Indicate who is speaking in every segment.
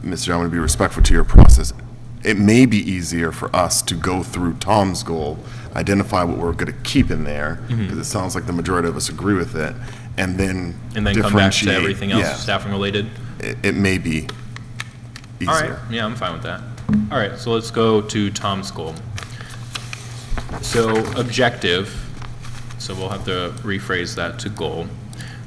Speaker 1: Mr. I want to be respectful to your process. It may be easier for us to go through Tom's goal, identify what we're going to keep in there,
Speaker 2: Mm-hmm.
Speaker 1: because it sounds like the majority of us agree with it, and then
Speaker 2: And then come back to
Speaker 1: differentiate.
Speaker 2: everything else
Speaker 1: Yeah.
Speaker 2: staffing related?
Speaker 1: It, it may be
Speaker 2: All right,
Speaker 1: easier.
Speaker 2: yeah, I'm fine with that. All right, so let's go to Tom's goal. So objective, so we'll have to rephrase that to goal.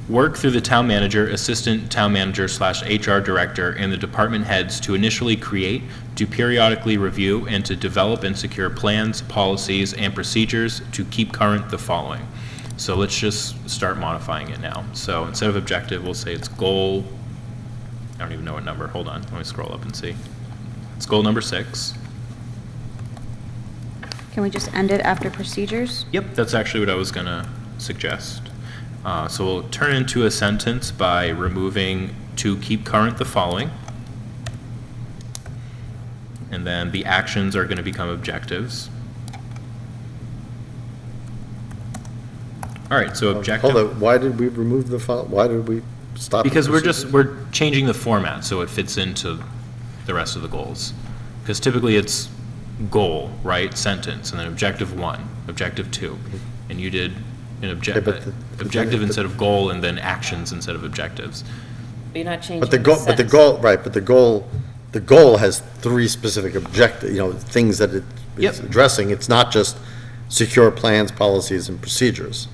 Speaker 2: Work through the town manager, assistant town manager slash HR director, and the department heads to initially create, to periodically review, and to develop and secure plans, policies, and procedures to keep current the following. So let's just start modifying it now. So instead of objective, we'll say it's goal I don't even know what number. Hold on. Let me scroll up and see. It's goal number six.
Speaker 3: Can we just end it after procedures?
Speaker 2: Yep, that's actually what I was gonna suggest. Uh, so we'll turn into a sentence by removing to keep current the following. And then the actions are gonna become objectives. All right, so objective.
Speaker 4: Hold on, why did we remove the, fol- why did we stop? the
Speaker 2: Because we're just,
Speaker 4: procedure?
Speaker 2: we're changing the format so it fits into the rest of the goals. Because typically it's goal, right, sentence, and then objective one, objective two. And you did an uh,
Speaker 4: Yeah, but
Speaker 2: objective,
Speaker 4: the- the-
Speaker 2: objective instead of goal, and then actions instead of objectives.
Speaker 5: But you're not changing
Speaker 4: But the goal, but the
Speaker 5: sentence.
Speaker 4: goal, right, but the goal, the goal has three specific objective, you know, things that it is
Speaker 2: Yep.
Speaker 4: addressing. It's not just secure plans, policies, and procedures.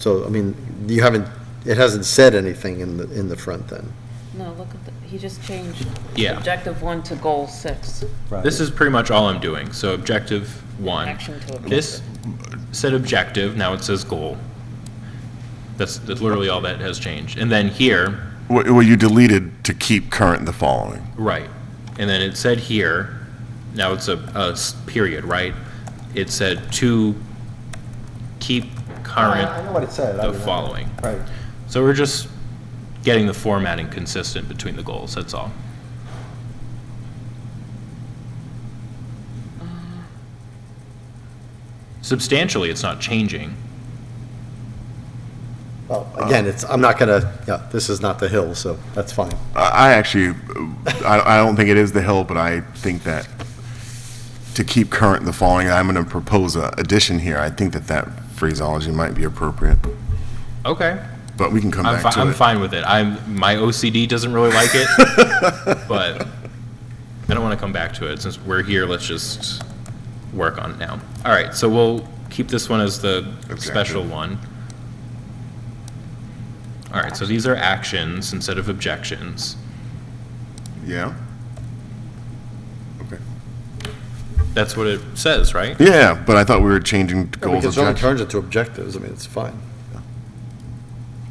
Speaker 4: So, I mean, you haven't, it hasn't said anything in the, in the front then.
Speaker 5: No, look at, the- he just changed.
Speaker 2: Yeah.
Speaker 5: Objective one to goal six.
Speaker 2: This is pretty much all I'm doing, so objective one.
Speaker 5: Action to objective.
Speaker 2: This said objective, now it says goal. That's, that's literally all that has changed. And then here,
Speaker 1: Well, well, you deleted to keep current the following.
Speaker 2: Right. And then it said here, now it's a, a s- period, right? It said to keep
Speaker 6: I
Speaker 2: current
Speaker 6: know what it said. I
Speaker 2: the
Speaker 6: mean,
Speaker 2: following.
Speaker 6: Right.
Speaker 2: So we're just getting the formatting consistent between the goals, that's all. Substantially, it's not changing.
Speaker 4: Well, again, it's, I'm not gonna, yeah, this is not the hill, so that's fine.
Speaker 1: I I actually, I, I don't think it is the hill, but I think that to keep current the following, I'm going to propose a addition here. I think that that phraseology might be appropriate,
Speaker 2: Okay.
Speaker 1: but we can come
Speaker 2: I'm,
Speaker 1: back
Speaker 2: fi-
Speaker 1: to
Speaker 2: I'm
Speaker 1: it.
Speaker 2: fine with it. I'm, my OCD doesn't really like it, but I don't want to come back to it. Since we're here, let's just work on it now. All right, so we'll keep this one as the special
Speaker 1: Objective.
Speaker 2: one. All right, so these are actions instead of objections.
Speaker 1: Yeah? Okay.
Speaker 2: That's what it says, right?
Speaker 1: Yeah, but I thought we were changing
Speaker 4: Yeah, We
Speaker 1: goals.
Speaker 4: can certainly
Speaker 1: objectives.
Speaker 4: turn it to objectives, I mean, it's fine.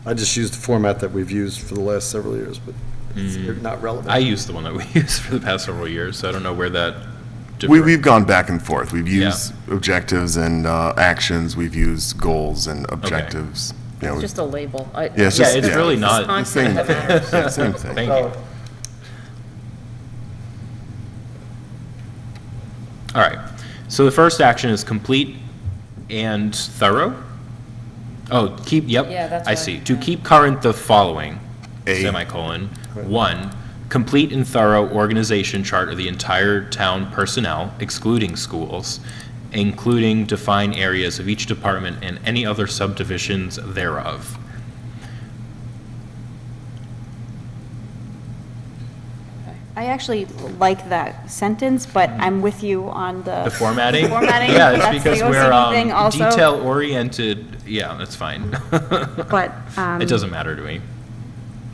Speaker 4: I just used the format that we've used for the last several years, but it's
Speaker 1: Mm.
Speaker 4: not relevant.
Speaker 2: I use the one that we use for the past several years, so I don't know where that.
Speaker 1: We,
Speaker 2: differ-
Speaker 1: we've gone back and forth. We've
Speaker 2: Yeah.
Speaker 1: used objectives and uh, actions, we've used goals and objectives. You know,
Speaker 5: It's
Speaker 1: we-
Speaker 5: just a label. I-
Speaker 1: Yeah, it's
Speaker 2: Yeah,
Speaker 1: just-
Speaker 2: it's really not.
Speaker 1: the same
Speaker 5: Content
Speaker 1: thing.
Speaker 5: that matters.
Speaker 1: Yeah, Same thing.
Speaker 2: Thank
Speaker 6: So,
Speaker 2: you. All right. So the first action is complete and thorough. Oh, keep, yep.
Speaker 5: Yeah, that's
Speaker 2: I
Speaker 5: what I-
Speaker 2: see. To keep current the following,
Speaker 1: A.
Speaker 2: semicolon, one, complete and thorough organization chart of the entire town personnel, excluding schools, including defined areas of each department and any other subdivisions thereof.
Speaker 3: I actually like that sentence, but I'm with you on the.
Speaker 2: The formatting?
Speaker 3: Formatting,
Speaker 2: Yeah, it's
Speaker 3: that's the
Speaker 2: because we're
Speaker 3: OCD thing
Speaker 2: um,
Speaker 3: also.
Speaker 2: detail-oriented, yeah, that's fine.
Speaker 3: But, um,
Speaker 2: It doesn't matter to me.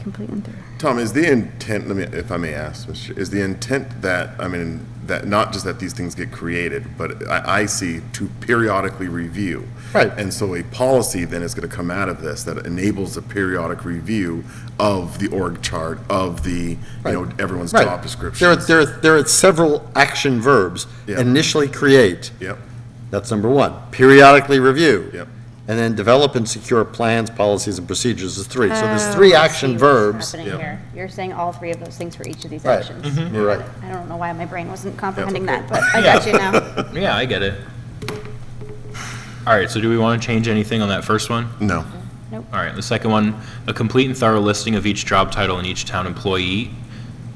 Speaker 3: complete and thorough.
Speaker 1: Tom, is the intent, let me, if I may ask, Mr. is the intent that, I mean, that, not just that these things get created, but I, I see to periodically review.
Speaker 4: Right.
Speaker 1: And so a policy then is gonna come out of this that enables a periodic review of the org chart, of the, you know,
Speaker 4: Right.
Speaker 1: everyone's
Speaker 4: Right.
Speaker 1: job description.
Speaker 4: There are, there are, there are several action verbs.
Speaker 1: Yeah.
Speaker 4: Initially create,
Speaker 1: Yep,
Speaker 4: that's number one. Periodically review.
Speaker 1: Yep.
Speaker 4: And then develop and secure plans, policies, and procedures is three. So there's three
Speaker 3: Oh, I see
Speaker 4: action
Speaker 3: what's
Speaker 4: verbs.
Speaker 3: happening
Speaker 1: Yep.
Speaker 3: here. You're saying all three of those things for each of these
Speaker 4: Right.
Speaker 3: actions.
Speaker 2: Mm-hmm.
Speaker 4: You're right.
Speaker 3: I don't know why my brain wasn't comprehending that, but I got you now.
Speaker 2: Yeah, I get it. All right, so do we want to change anything on that first one?
Speaker 1: no.
Speaker 2: All right, the second one, a complete and thorough listing of each job title and each town employee